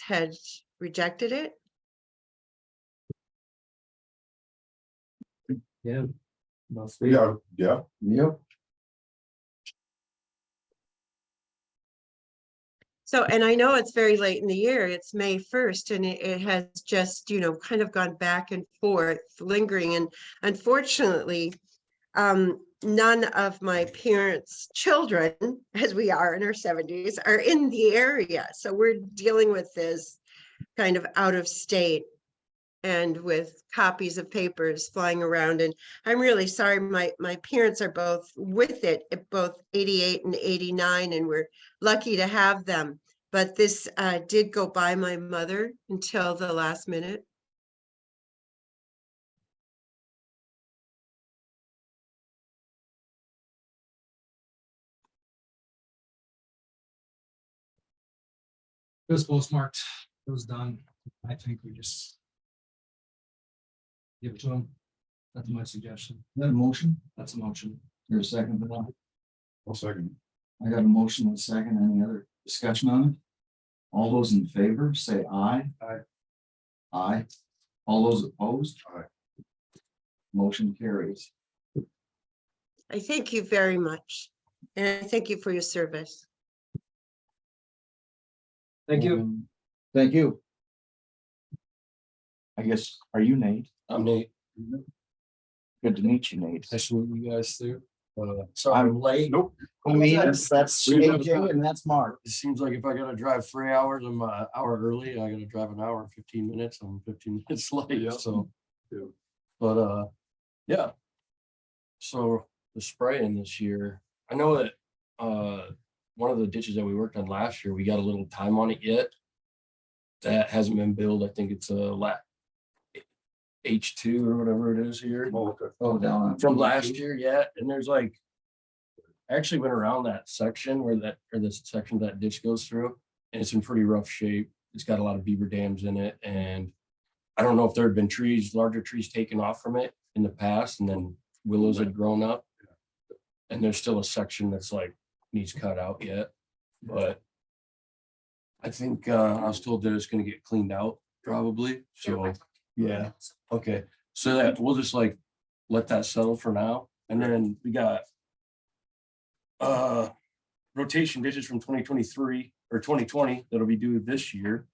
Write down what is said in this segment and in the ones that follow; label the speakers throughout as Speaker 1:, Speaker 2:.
Speaker 1: had rejected it.
Speaker 2: Yeah. Must be.
Speaker 3: Yeah, yeah,
Speaker 2: Yep.
Speaker 1: So, and I know it's very late in the year, it's May first, and it, it has just, you know, kind of gone back and forth lingering, and unfortunately, um, none of my parents' children, as we are in our seventies, are in the area, so we're dealing with this kind of out of state and with copies of papers flying around, and I'm really sorry, my, my parents are both with it, at both eighty-eight and eighty-nine, and we're lucky to have them. But this uh, did go by my mother until the last minute.
Speaker 2: It was postmarked. It was done. I think we just. Give it to him. That's my suggestion. That a motion? That's a motion. You're a second. but not-
Speaker 3: I'll second.
Speaker 2: I got a motion and a second. Any other discussion on it? All those in favor, say aye.
Speaker 3: Aye.
Speaker 2: Aye. All those opposed?
Speaker 3: Aye.
Speaker 2: Motion carries.
Speaker 1: I thank you very much. And I thank you for your service.
Speaker 2: Thank you. Um, Thank you. I guess, are you Nate?
Speaker 4: I'm Nate.
Speaker 2: Good to meet you, Nate.
Speaker 4: I salute you guys too. Uh, so I'm late.
Speaker 3: Nope.
Speaker 4: I mean,
Speaker 2: that's, that's
Speaker 4: we-
Speaker 2: AJ and that's Mark.
Speaker 4: It seems like if I gotta drive three hours, I'm an hour early. I gotta drive an hour and fifteen minutes. I'm fifteen minutes late,
Speaker 3: Yeah.
Speaker 4: so.
Speaker 3: Yeah.
Speaker 4: But, uh, yeah. So the spraying this year, I know that, uh, one of the ditches that we worked on last year, we got a little time on it yet. That hasn't been billed. I think it's a la H two or whatever it is here.
Speaker 3: Oh, okay.
Speaker 2: Oh, down.
Speaker 4: Uh, from last year yet, and there's like. I Actually went around that section where that, or this section that ditch goes through, and it's in pretty rough shape. It's got a lot of beaver dams in it and. I don't know if there had been trees, larger trees taken off from it in the past, and then willows had grown up. And there's still a section that's like needs cut out yet, but. I think uh, I was told that it's gonna get cleaned out probably, so, yeah, okay, so that we'll just like let that settle for now. And then we got uh, rotation ditches from twenty twenty-three or twenty twenty that'll be due this year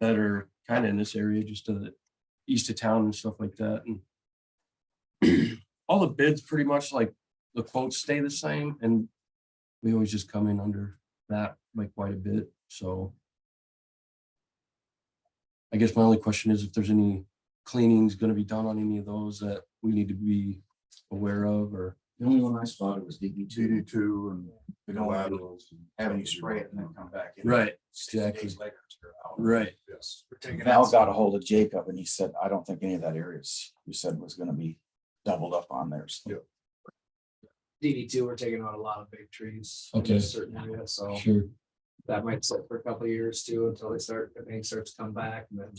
Speaker 4: that are kind of in this area, just to the east of town and stuff like that. And all the bids, pretty much like the quotes stay the same and we always just come in under that by quite a bit, so. I guess my only question is if there's any cleanings gonna be done on any of those that we need to be aware of or?
Speaker 2: The only one I spotted was DD two.
Speaker 3: DD two
Speaker 2: We
Speaker 3: and
Speaker 2: don't have
Speaker 3: laterals. and-
Speaker 2: having you spray it and then come back. in. Six
Speaker 4: exactly.
Speaker 2: days later, you're out.
Speaker 4: Right.
Speaker 3: Yes.
Speaker 2: Val got a hold of Jacob and he said, I don't think any of that areas you said was gonna be doubled up on there. so."
Speaker 5: DD two, we're taking out a lot of big trees. in
Speaker 4: Okay.
Speaker 5: Certain areas, so
Speaker 4: Sure.
Speaker 5: that might sit for a couple of years too, until they start, if they start to come back and then.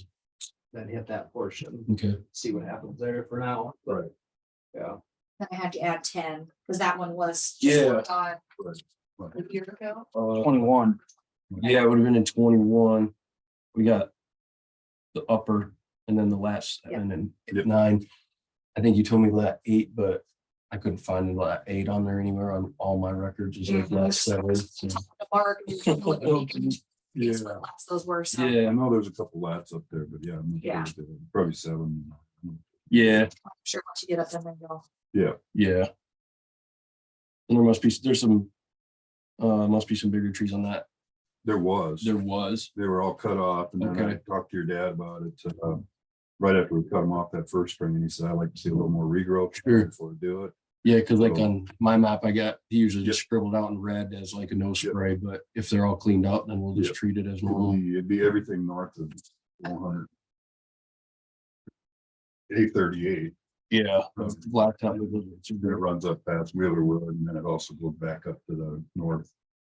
Speaker 5: Then hit that portion,
Speaker 4: Okay.
Speaker 5: see what happens there for now. but,
Speaker 3: Right.
Speaker 5: Yeah,
Speaker 6: Then I had to add ten, because that one was.
Speaker 4: Yeah.
Speaker 6: worked on
Speaker 3: Right, right.
Speaker 6: A year ago.
Speaker 4: Uh,
Speaker 2: Twenty-one,
Speaker 4: yeah, it would have been in twenty-one. We got the upper and then the last
Speaker 6: Yeah.
Speaker 4: and then
Speaker 3: Yep.
Speaker 4: nine. I think you told me lat eight, but I couldn't find the lat eight on there anywhere on all my records. It's like lat seven. so-
Speaker 6: The bark. and the little-
Speaker 3: Yeah,
Speaker 6: what lots Those were so.
Speaker 4: Yeah,
Speaker 3: I know there's a couple lats up there, but yeah. I'm not sure
Speaker 6: Yeah.
Speaker 3: if they're- Probably seven.
Speaker 4: yeah,
Speaker 6: I'm Sure, once you get up there, then you'll.
Speaker 4: yeah. And there must be, there's some, uh, must be some bigger trees on that.
Speaker 3: There was,
Speaker 4: There was.
Speaker 3: they were all cut off and then I
Speaker 4: Okay.
Speaker 3: talked to your dad about it, uh, right after we cut them off that first spring and he said, I'd like to see a little more regrowth.
Speaker 4: Sure.
Speaker 3: Before we do it.
Speaker 4: Yeah, cause like
Speaker 3: So-
Speaker 4: on my map, I got, he usually
Speaker 3: Oh. Yep.
Speaker 4: just scribbled out in red as like a no
Speaker 3: Yep.
Speaker 4: spray, but if they're all cleaned up, then we'll just
Speaker 3: Yep.
Speaker 4: treat it as
Speaker 3: It'd
Speaker 4: normal.
Speaker 3: be- it'd be everything north of one hundred. Eight thirty-eight.
Speaker 4: Yeah. Blacktop.
Speaker 3: It runs up past Wheeler Wood and then it also goes back up to the
Speaker 4: Mhm.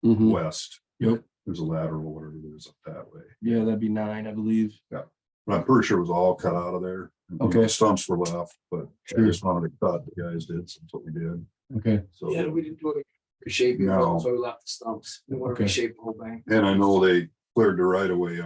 Speaker 3: northwest.
Speaker 4: Yep.
Speaker 3: There's a lateral, whatever it is up that way.
Speaker 4: Yeah, that'd be nine, I believe.
Speaker 3: But I'm pretty sure it was all cut out of there.
Speaker 4: Okay.
Speaker 3: Stumps were left, but I
Speaker 4: Sure.
Speaker 3: just wanted to cut, the guys did, so that's what we did.
Speaker 4: Okay.
Speaker 5: yeah,
Speaker 3: So,
Speaker 5: we didn't do it, reshape,
Speaker 3: No.
Speaker 5: so we left the stumps, we want
Speaker 4: Okay.
Speaker 5: to reshape the whole bank.
Speaker 3: and I know they cleared the right of way